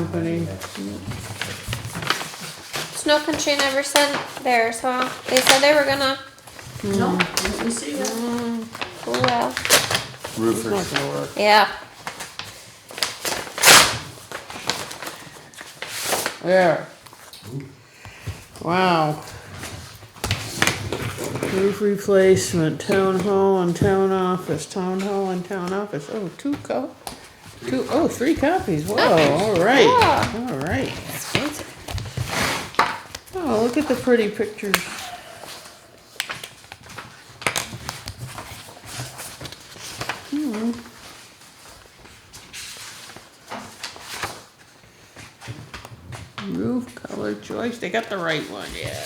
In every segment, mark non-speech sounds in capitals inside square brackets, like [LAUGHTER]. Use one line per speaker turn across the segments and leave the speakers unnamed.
company.
Snow Country never sent theirs, huh? They said they were gonna.
No, didn't we see that?
Oh well.
Not
Roofers.
gonna work.
Yeah.
There. Wow. Roof replacement, town hall and town office, town hall and town office, oh, two co- two, oh, three copies, whoa, alright,
Yeah.
alright. Oh, look at the pretty pictures. Hmm. Roof color choice, they got the right one, yeah.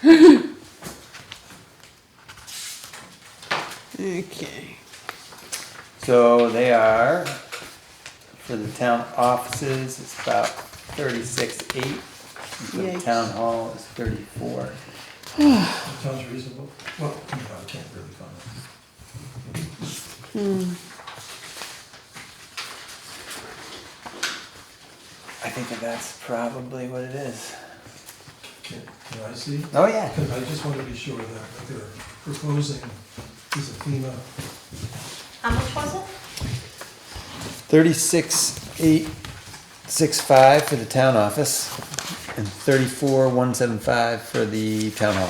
[LAUGHS] Okay,
So they are, for the town offices, it's about thirty-six eight. For the
Yikes.
town hall is thirty-four.
Sounds reasonable. Well, you know, I can't really comment.
I think that that's probably what it is.
Can can I see?
Oh, yeah.
Because I just want to be sure that what they're proposing is a FEMA,
How much was it?
Thirty-six eight six five for the town office and thirty-four one seven five for the town hall.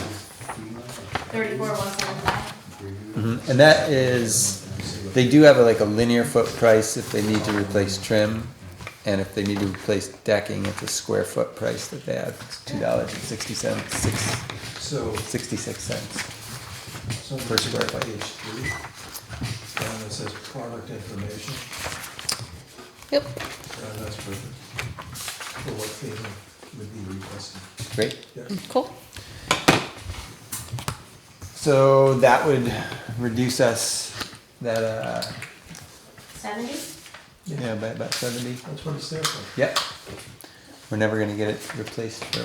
Thirty-four, one seventy-five.
Mhm. And that is, they do have a, like a linear foot price if they need to replace trim. And if they need to replace decking, it's a square foot price that they have, it's two dollars and sixty cents, six,
so.
sixty-six cents.
so
Per square foot.
Page three, and it says product information,
Yep.
and that's perfect. For what FEMA would be requesting.
Great.
Yes,
Cool.
So that would reduce us, that, uh,
Seventy?
you know, by about seventy.
that's what it's there for.
Yep. We're never gonna get it replaced for,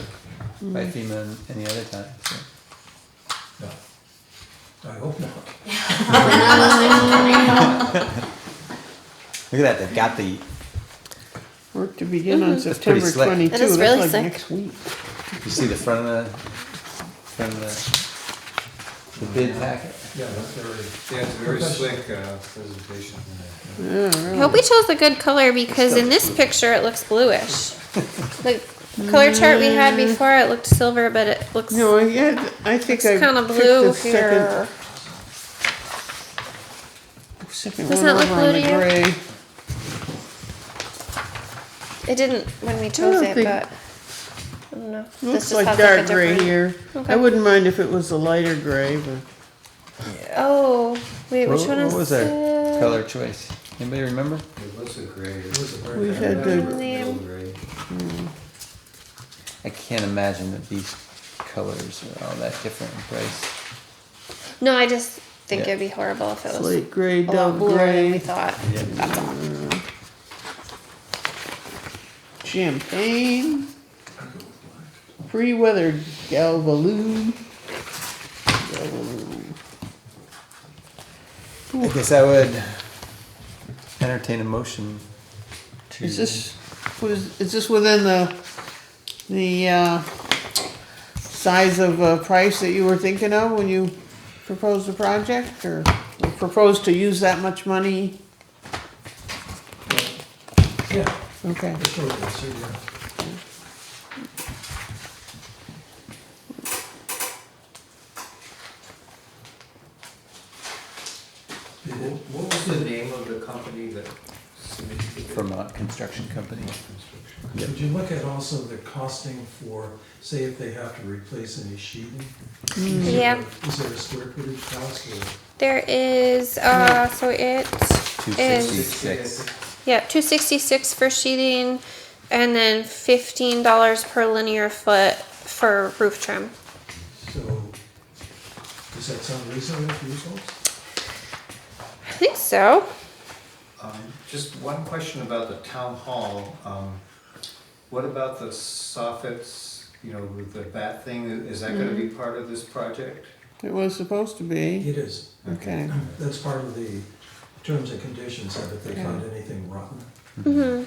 by FEMA any other time, so.
No. I hope not.
Look at that, they've got the,
work to begin on
That's pretty
September
slick.
twenty-two,
That is
that's
really
like
slick.
next week.
you see the front of the, front of the, the bid packet?
Yeah, that's very,
Yeah, it's a very slick uh, presentation.
Oh.
I hope we chose a good color because in this picture it looks
[LAUGHS]
bluish. The color chart we had before it looked silver, but it looks
Mm. No, I had, I think
it's
I
kind of
picked
blue
the second,
here.
second
Doesn't
one
that look
over on
blue
the
to you?
gray.
It didn't when we chose
don't
it,
think-
but I don't know.
Looks
just
like
has, a
dark gray
different-
here. I
Okay.
wouldn't mind if it was a lighter gray, but
Oh wait,
What,
which one
what
is
was
the-
our color choice? Anybody remember?
It looks a gray.
it was a very.
we had the,
Name.
I can't imagine that these colors are all that different in price.
No, I just think
Yeah.
it'd be horrible if it was
slate gray,
a lot
dove
bluer than we
gray,
thought. That's all.
champagne, pre-weathered galvalume. Galvalume.
I guess I would entertain a motion to.
Is this, was, is this within the, the, uh, size of, uh, price that you were thinking of when you proposed the project, or proposed to use that much money?
Yeah,
Okay.
for sure, so, yeah. People,
What was the name of the company that submitted the bid?
From a construction company.
Would you look at also the costing for, say if they have to replace any sheeting? Is there-
Yeah.
Is there a square footage cost or?
There is, uh, so it is,
266.
yeah, two sixty-six for sheathing, and then fifteen dollars per linear foot for roof trim.
So, does that sound reasonable to you folks?
I think so.
Um, Just one question about the town hall. Um, What about the soffits, you know, with the bat thing? Is that gonna be part of this project?
It was supposed to be,
It is.
okay.
Mm-hmm.
That's part of the terms and conditions, haven't they found anything rotten?